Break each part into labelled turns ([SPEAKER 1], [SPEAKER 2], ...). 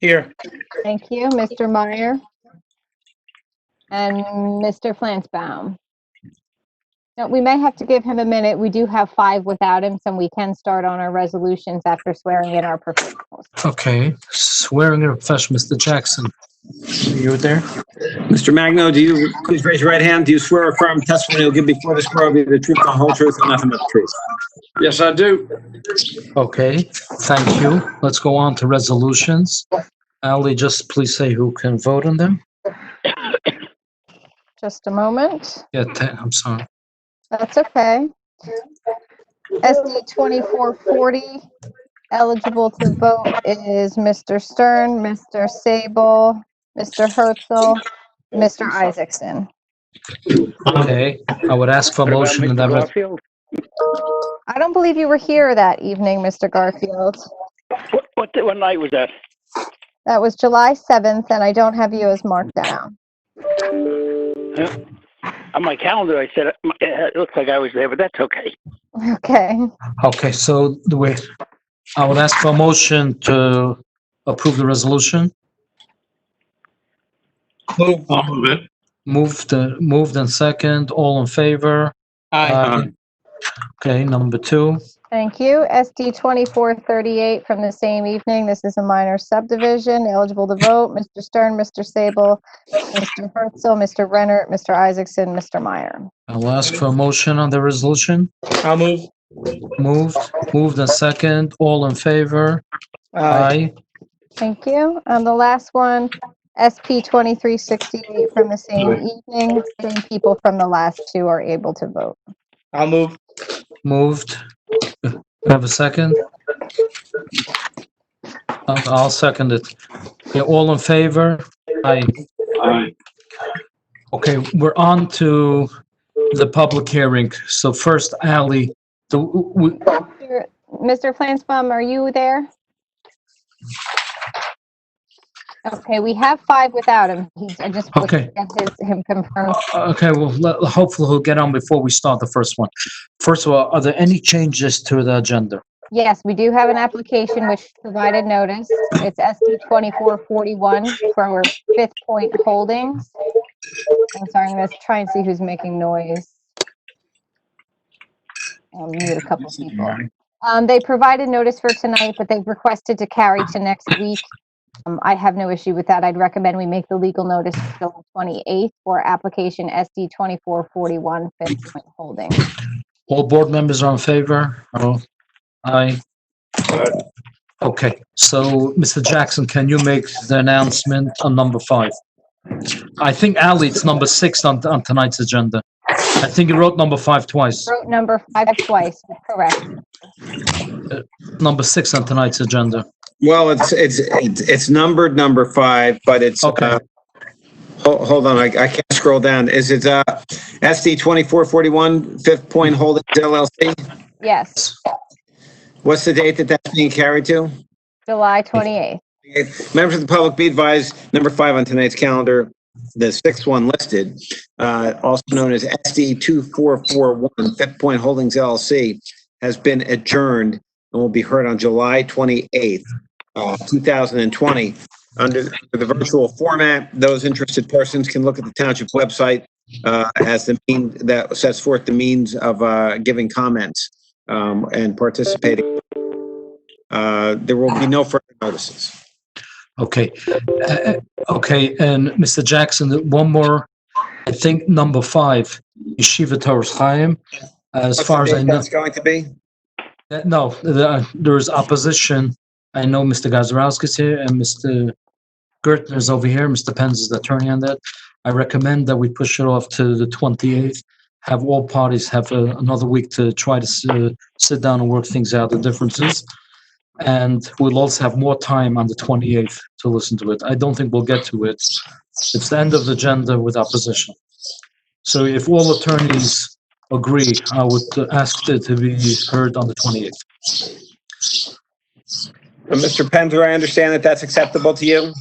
[SPEAKER 1] Here.
[SPEAKER 2] Thank you, Mr. Meyer. And Mr. Flansbaum. No, we may have to give him a minute. We do have five without him, so we can start on our resolutions after swearing in our professionals.
[SPEAKER 3] Okay, swearing in profession, Mr. Jackson.
[SPEAKER 1] You there?
[SPEAKER 4] Mr. Magno, do you, please raise your right hand. Do you swear or affirm testimony you'll give before this borough will be the truth, the whole truth, and nothing but the truth?
[SPEAKER 5] Yes, I do.
[SPEAKER 3] Okay, thank you. Let's go on to resolutions. Ali, just please say who can vote on them.
[SPEAKER 2] Just a moment.
[SPEAKER 3] Yeah, te- I'm sorry.
[SPEAKER 2] That's okay. SD 2440, eligible to vote is Mr. Stern, Mr. Sable, Mr. Herzl, Mr. Isaacson.
[SPEAKER 3] Okay, I would ask for a motion in that. res-
[SPEAKER 5] Garfield?
[SPEAKER 2] I don't believe you were here that evening, Mr. Garfield.
[SPEAKER 5] What, what, what night was that?
[SPEAKER 2] That was July 7th, and I don't have you as marked down.
[SPEAKER 5] On my calendar, I said, uh, it looks like I was there, but that's okay.
[SPEAKER 2] Okay,
[SPEAKER 3] Okay, so the way, I would ask for a motion to approve the resolution.
[SPEAKER 1] Move.
[SPEAKER 3] Moved, uh, moved and second, all in favor? Uh-huh.
[SPEAKER 1] Aye.
[SPEAKER 3] Okay, number two.
[SPEAKER 2] thank you. SD 2438 from the same evening. This is a minor subdivision, eligible to vote, Mr. Stern, Mr. Sable, Mr. Herzl, Mr. Renner, Mr. Isaacson, Mr. Meyer.
[SPEAKER 3] I'll ask for a motion on the resolution.
[SPEAKER 1] I'll move.
[SPEAKER 3] Moved, moved and second, all in favor? Aye.
[SPEAKER 2] Thank you. Um, the last one, SP 2368 from the same evening, same people from the last two are able to vote.
[SPEAKER 1] I'll move.
[SPEAKER 3] Moved. Do I Have a second? I'll I'll second it. Okay, all in favor? Aye. Okay, we're on to the public hearing. So first, Ali, the, we,
[SPEAKER 2] Mr. Mr. Flansbaum, are you there? Okay, we have five without him. He, I just was
[SPEAKER 3] Okay.
[SPEAKER 2] to get his, him confirmed.
[SPEAKER 3] okay, well, le- hopefully he'll get on before we start the first one. First of all, are there any changes to the agenda?
[SPEAKER 2] Yes, we do have an application which provided notice. It's SD 2441 for our Fifth Point Holdings. I'm sorry, I'm going to try and see who's making noise. I'll mute a couple people. Um, They provided notice for tonight, but they've requested to carry to next week. Um, I have no issue with that. I'd recommend we make the legal notice till 28th for application SD 2441 Fifth Point Holdings.
[SPEAKER 3] All board members are in favor? Oh, Aye. Okay, so Mr. Jackson, can you make the announcement on number five? I think Ali, it's number six on, on tonight's agenda. I think you wrote number five twice,
[SPEAKER 2] Wrote number five twice, correct.
[SPEAKER 3] number six on tonight's agenda.
[SPEAKER 4] Well, it's, it's, it's it's numbered number five, but it's,
[SPEAKER 3] Okay.
[SPEAKER 4] uh, ho- hold on, I, I can't scroll down. Is it, uh, SD 2441, Fifth Point Holdings LLC?
[SPEAKER 2] Yes.
[SPEAKER 4] What's the date that that's being carried to?
[SPEAKER 2] July 28th.
[SPEAKER 4] Members of the public be advised, number five on tonight's calendar, the sixth one listed, uh, also known as SD 2441, Fifth Point Holdings LLC, has been adjourned and will be heard on July 28th, uh, 2020. Under the virtual format, those interested persons can look at the township website uh, as the mean, that sets forth the means of uh, giving comments um, and participating. Uh, There will be no further notices.
[SPEAKER 3] Okay, Uh, okay, and Mr. Jackson, one more, I think number five, Yeshiva Torres Chaim. As
[SPEAKER 4] What's
[SPEAKER 3] far
[SPEAKER 4] the
[SPEAKER 3] as I
[SPEAKER 4] date
[SPEAKER 3] know.
[SPEAKER 4] That's going to be?
[SPEAKER 3] Uh, No, the- uh, there is opposition. I know Mr. Gazarovskis here and Mr. Gertner is over here. Mr. Pence is the attorney on that. I recommend that we push it off to the 28th. Have all parties have uh, another week to try to s- uh, sit down and work things out, the differences. And we'll also have more time on the 28th to listen to it. I don't think we'll get to it. It's the end of the agenda with opposition. So if all attorneys agree, I would uh, ask it to be heard on the 28th.
[SPEAKER 4] Uh, Mr. Penzer, I understand that that's acceptable to you?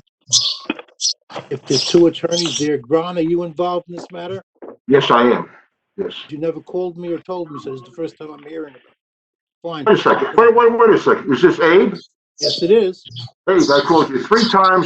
[SPEAKER 6] If there's two attorneys there, Gron, are you involved in this matter?
[SPEAKER 7] Yes, I am. Yes.
[SPEAKER 6] You never called me or told me, so it's the first time I'm hearing about it. Fine.
[SPEAKER 7] Wait a second. Wait, wait, wait a second. Is this Abe?
[SPEAKER 6] Yes, it is.
[SPEAKER 7] Hey, I called you three times.